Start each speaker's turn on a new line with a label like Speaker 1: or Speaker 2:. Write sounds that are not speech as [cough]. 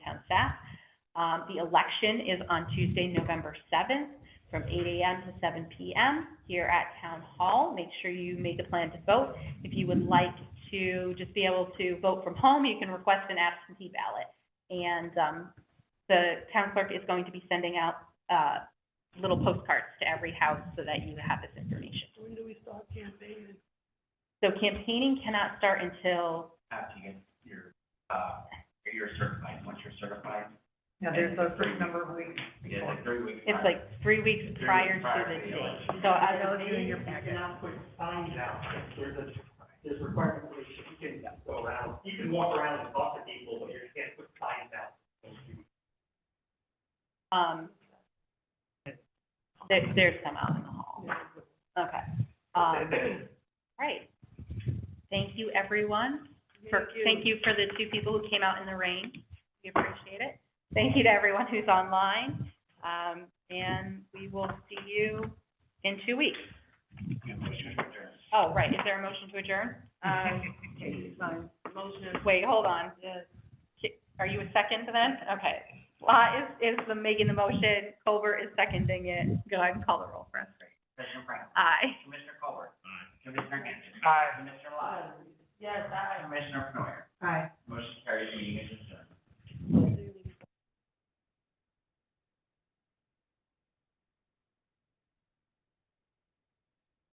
Speaker 1: Um, the election is on Tuesday, November seventh, from eight AM to seven PM here at Town Hall. Make sure you make a plan to vote. If you would like to just be able to vote from home, you can request an absentee ballot. And, um, the town clerk is going to be sending out, uh, little postcards to every house so that you have this information.
Speaker 2: When do we start campaigning?
Speaker 1: So campaigning cannot start until,
Speaker 3: after you get your, uh, you're certified, once you're certified,
Speaker 4: Yeah, there's a certain number of weeks
Speaker 3: it's
Speaker 4: before.
Speaker 3: like three weeks.
Speaker 1: it's like three weeks
Speaker 3: Three weeks
Speaker 1: prior
Speaker 3: prior
Speaker 1: to
Speaker 3: to
Speaker 1: the
Speaker 3: the
Speaker 1: date.
Speaker 3: election.
Speaker 1: So I
Speaker 4: know
Speaker 1: would
Speaker 4: if you're in your packet.
Speaker 2: Now, put signs out, there's a, there's requirements that you can go around, you can walk around and talk to people, but you can't put signs out.
Speaker 1: Um, there, there's some out in the hall. Okay. Um, right. Thank you, everyone. for- Thank you for the two people who came out in the rain. We appreciate it. Thank you to everyone who's online. Um, and we will see you in two weeks.
Speaker 3: Yeah, motion to adjourn.
Speaker 1: Oh, right. Is there a motion to adjourn? Uh,
Speaker 4: Um, [laughs] okay, fine.
Speaker 1: Wait, hold on. Ki- Are you a second then? Okay. Lot is, is the making the motion, Colbert is seconding it. Go ahead and call the roll for us.
Speaker 3: Commissioner Brown.
Speaker 1: Aye.
Speaker 3: Commissioner Colbert. Commissioner Gannon. Aye. Commissioner Lyle. Yes, aye. Commissioner Penoyer.
Speaker 4: Aye.